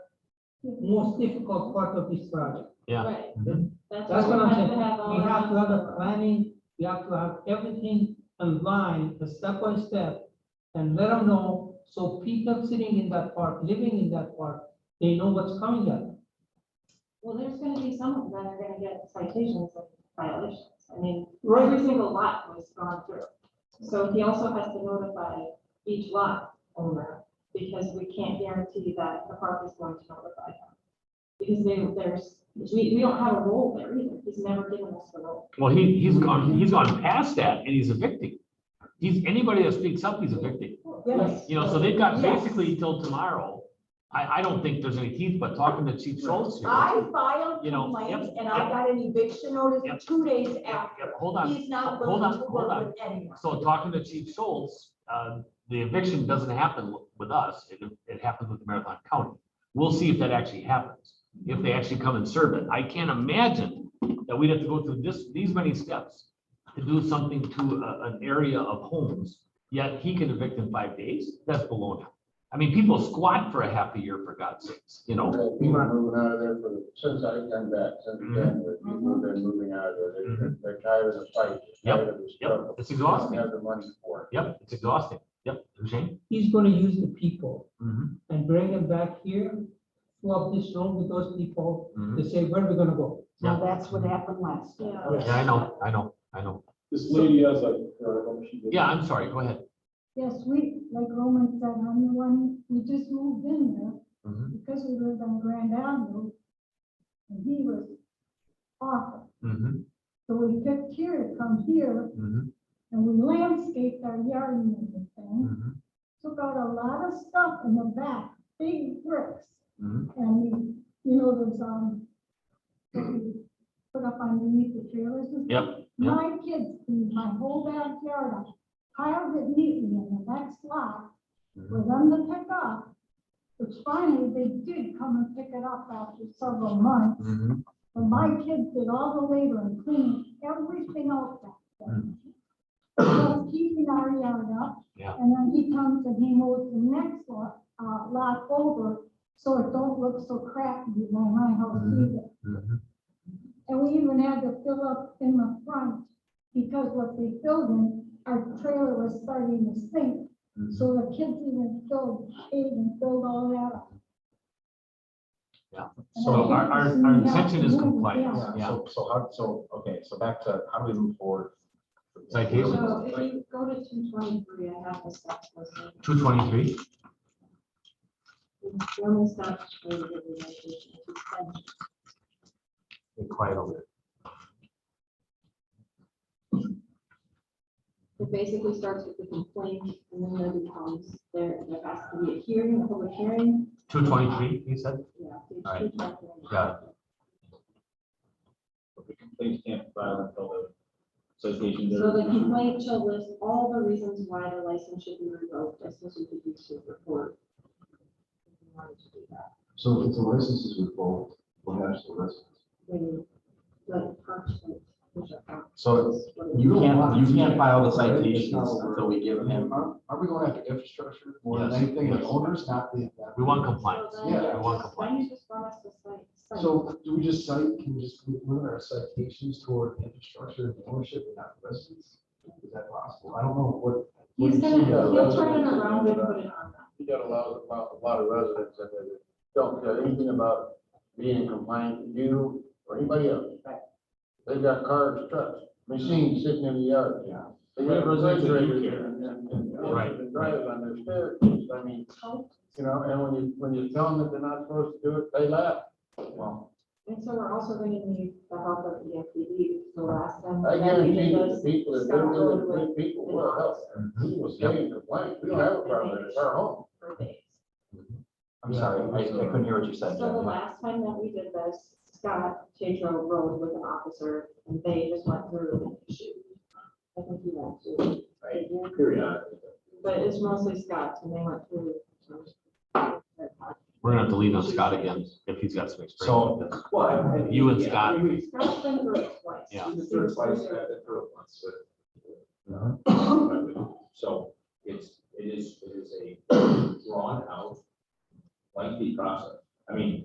most difficult part of this project. Yeah. Right. Mhm. That's what I'm we have saying. to have all We have to our- have a planning, we have to have everything in line, a step by step. And let them know, so people sitting in that park, living in that park, they know what's coming at. them. Well, there's gonna be some of them that are gonna get citations and violations. I mean, every Right, single lot was gone through. So he also has to notify each lot owner, because we can't guarantee that the park is going to notify them. Because they, there's, we, we don't have a role there either, he's never given us the role. Well, he, he's gone, he's gone past that and he's evicting. He's, anybody that speaks up, he's evicting. yes. You know, so they've got Yes. basically till tomorrow. I, I don't think there's any teeth, but talking to Chief Schultz here. I filed You know, complaint yep, and I yep. got an eviction Yep. notice two days Yeah, after. yeah, Hold on, He's not hold willing on, to hold on. work with anyone. So talking to Chief Schultz, uh, the eviction doesn't happen with us. It, it happens with Marathon County. We'll see if that actually happens, if they actually come and serve it. I can't imagine that we'd have to go through this, these many steps to do something to a- an area of homes, yet he can evict in five days. That's baloney. I mean, people squat for a half a year, for God's sakes, you know? People moving out of there for, since I've come back, since Mm-hmm. then, but people have been moving out of there. They're- They're tired of the fight. Yep, tired of the Yep, struggle. it's They don't exhausting. Have the money for Yep, it's exhausting. Yep, Shane? He's gonna use the people Mhm, and bring them back here, fill up this room with those people, mhm. to say, where are we gonna go? Now, that's what happened last year. Yeah. Yeah, I know, I know, I know. This lady has uh, a. Yeah, Yeah, I'm sorry, go ahead. Yes, we, like Roman said, I'm the one, we just moved in there Mhm, because we lived on Grand Avenue. And he was awful. mhm, So we picked here to come here mhm, and we landscaped our yard and everything. mhm, Took out a lot of stuff in the back, big bricks. mhm. And we, you know, there's, um, that we put up underneath the trailers and Yep. Yeah. My kids, cleaned my whole backyard, up, piled it neatly in the next lot Mm-hmm, for them to pick up. Which finally, they did come and pick it up after several months. Mhm, But my kids did all the labor and cleaned everything out back there. So keeping our yard up. Yeah. And then he comes and he mows the next lot, uh, lot over, so it don't look so crappy by my house Mhm. either. mhm. And we even had to fill up in the front because what they filled in, our trailer was starting to sink. So the kids even filled, ate and filled all that up. So our, our, our intention is compliance, Yeah. yeah. So, so how, so, okay, so back to, how do we move forward? Citation. So if you go to two twenty-three, I have the steps listed. Two twenty-three? One is not related to the location, it's been- Quiet over there. It basically starts with the complaint and then there becomes, there, there has to be a hearing, a public hearing. Two twenty-three, you said? Yeah. page All right. 221. Got The complaint can't file until the association. does- So the complaint shall list all the reasons why the license should be revoked, as soon as we do to report. If you wanted to do that, So if the license is revoked, what happens to the license? then the parchment, which are- So is what it is. you can't, you can't file the citations until we give them. Are are we going after infrastructure more than Yes, anything, the yes. owners, not the. We want So compliance. then Yeah, we want just- Why do you just want us to cite? cite? So do we just cite, can we just limit our citations toward infrastructure and ownership and not residents? Is that possible? I don't know what. what He's do you gonna, see? he'll turn it around and put it on that. You got a lot, of- lot- a lot of residents that they don't care anything about being in compliance, you or anybody else. They've got cars, trucks, machines sitting in the yard. Yeah. They got Residents that do refrigerators care. and- and- and- Right, and Drivers on their staircases, I mean, you know, and when you, when you tell them that they're not supposed to do it, they laugh. Well, And so we're also going to need the help of E EFPD, the last time. I that we guarantee did you, this, people that Scott do Road it, people will help. Mm-hmm. We will stay in compliance, we don't have a problem, it's our home. for days. Mm-hmm. I'm sorry, I I couldn't hear what you So said. the Jen. last time that we did this, Scott Pedro rode with an officer and they just went through the issue. I think you went through. Right. Period. But it's mostly Scott's and they went through. um, We're gonna have to lean on Scott again if he's got some experience. So- with this. Well, I- I- You and yeah, Scott. we- we- Scott's been through it twice. Yeah. we just sort of sliced that and threw it once, but, uh, So it's, it is, it is a drawn out lengthy process. I mean,